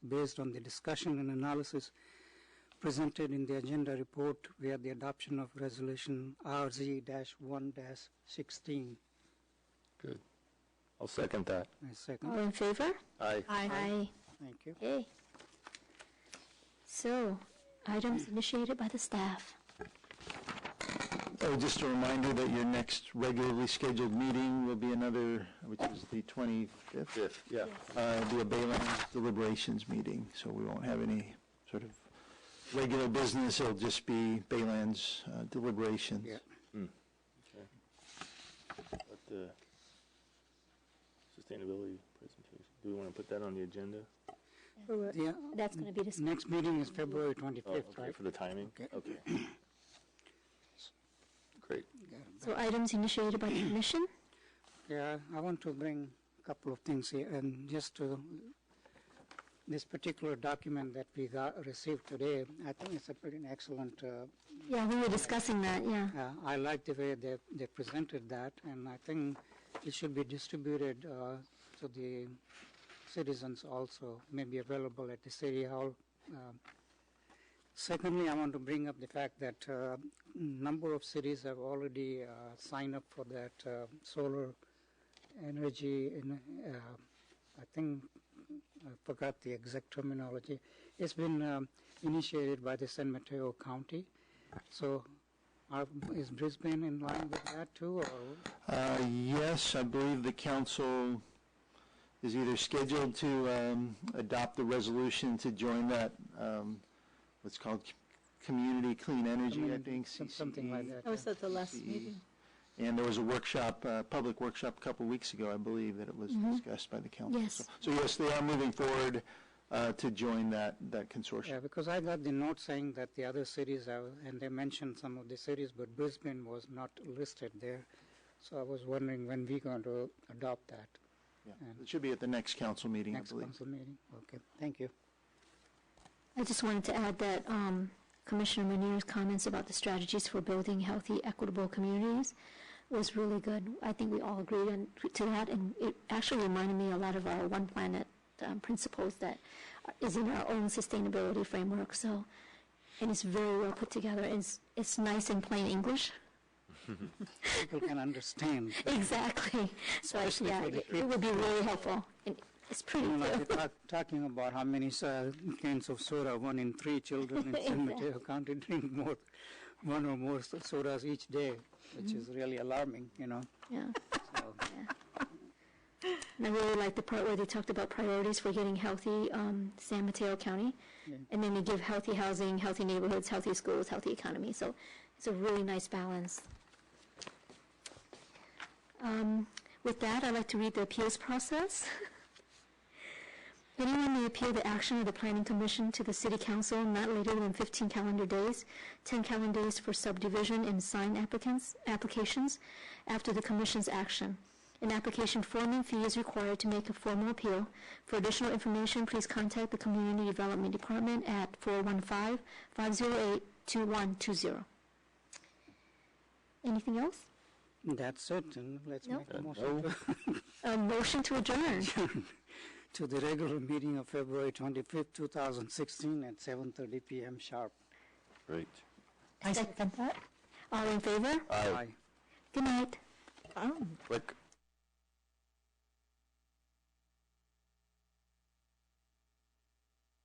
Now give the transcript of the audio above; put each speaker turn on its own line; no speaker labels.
based on the discussion and analysis presented in the agenda report via the adoption of resolution RZ-1-16.
I'll second that.
I
All
second.
in favor?
Aye.
Aye.
Thank you.
Okay. So, items initiated by the staff.
Oh, just a reminder that your next regularly scheduled meeting will be another, which is the 25th.
Fifth, yeah.
Uh, It'll be a Baylands deliberations meeting, so we won't have any sort of regular business. It'll just be Baylands uh, deliberations.
Yeah.
But the sustainability presentation, do we want to put that on the agenda?
Yeah,
That's going to be discussed.
next meeting is February
Oh,
25th,
okay,
right?
for the timing?
Okay.
Okay. Great.
So items initiated by the commission?
Yeah, I want to bring a couple of things here, and just to, this particular document that we got, received today, I think it's a pretty excellent, uh,
Yeah, we were discussing that, yeah.
uh, I like the way they, they presented that, and I think it should be distributed, uh, to the citizens also, maybe available at the city hall. Um, Secondly, I want to bring up the fact that, uh, number of cities have already, uh, signed up for that, uh, solar energy in, uh, I think, I forgot the exact terminology. It's been, um, initiated by the San Mateo County. So are, is Brisbane in line with that too, or?
Uh, Yes, I believe the council is either scheduled to um, adopt the resolution to join that, um, what's called c- Community Clean Energy, I
Community-
think, E.
some- Something like
CCE.
that.
I was at the last
CCE.
meeting.
And there was a workshop, uh public workshop a couple weeks ago, I believe, that it was
Mm-hmm.
discussed by the council.
Yes.
So- So yes, they are moving forward uh, to join that, that consortium.
Yeah, because I got the note saying that the other cities are, and they mentioned some of the cities, but Brisbane was not listed there. So I was wondering when we going to adopt that.
Yeah.
And
It should be at the next council meeting, I
next
believe.
council meeting? Okay, thank you.
I just wanted to add that um, Commissioner Munir's comments about the strategies for building healthy, equitable communities was really good. I think we all agreed on, to that, and it actually reminded me a lot of our One Planet um, principles that is in our own sustainability framework. So, and it's very well put together. It's it's nice in plain English.
People can understand.
Exactly. So I,
Especially
yeah,
for the
it, it would be really helpful. And it's pretty.
You know, like
too.
we talk, talking about how many uh, cans of soda, one in three children in San Mateo County drink more, one or more so- sodas each day, which is really alarming, you know.
Yeah.
So-
And I really like the part where they talked about priorities for getting healthy um, San Mateo County. And then they give healthy housing, healthy neighborhoods, healthy schools, healthy economy. So it's a really nice balance. Um, with that, I'd like to read the appeals process. Anyone may appeal the action of the Planning Commission to the City Council not later than 15 calendar days, 10 calendar days for subdivision and sign applicants, applications after the Commission's action. An application form and fee is required to make a formal appeal. For additional information, please contact the Community Development Department at 415-508-2120. Anything else?
That's it, and let's
No.
make a motion to-
A motion to adjourn.
to the regular meeting of February 25th, 2016 at 7:30 PM sharp.
Great.
I second that. All in favor?
Aye.
Aye.
Good night.
Oh.
Like,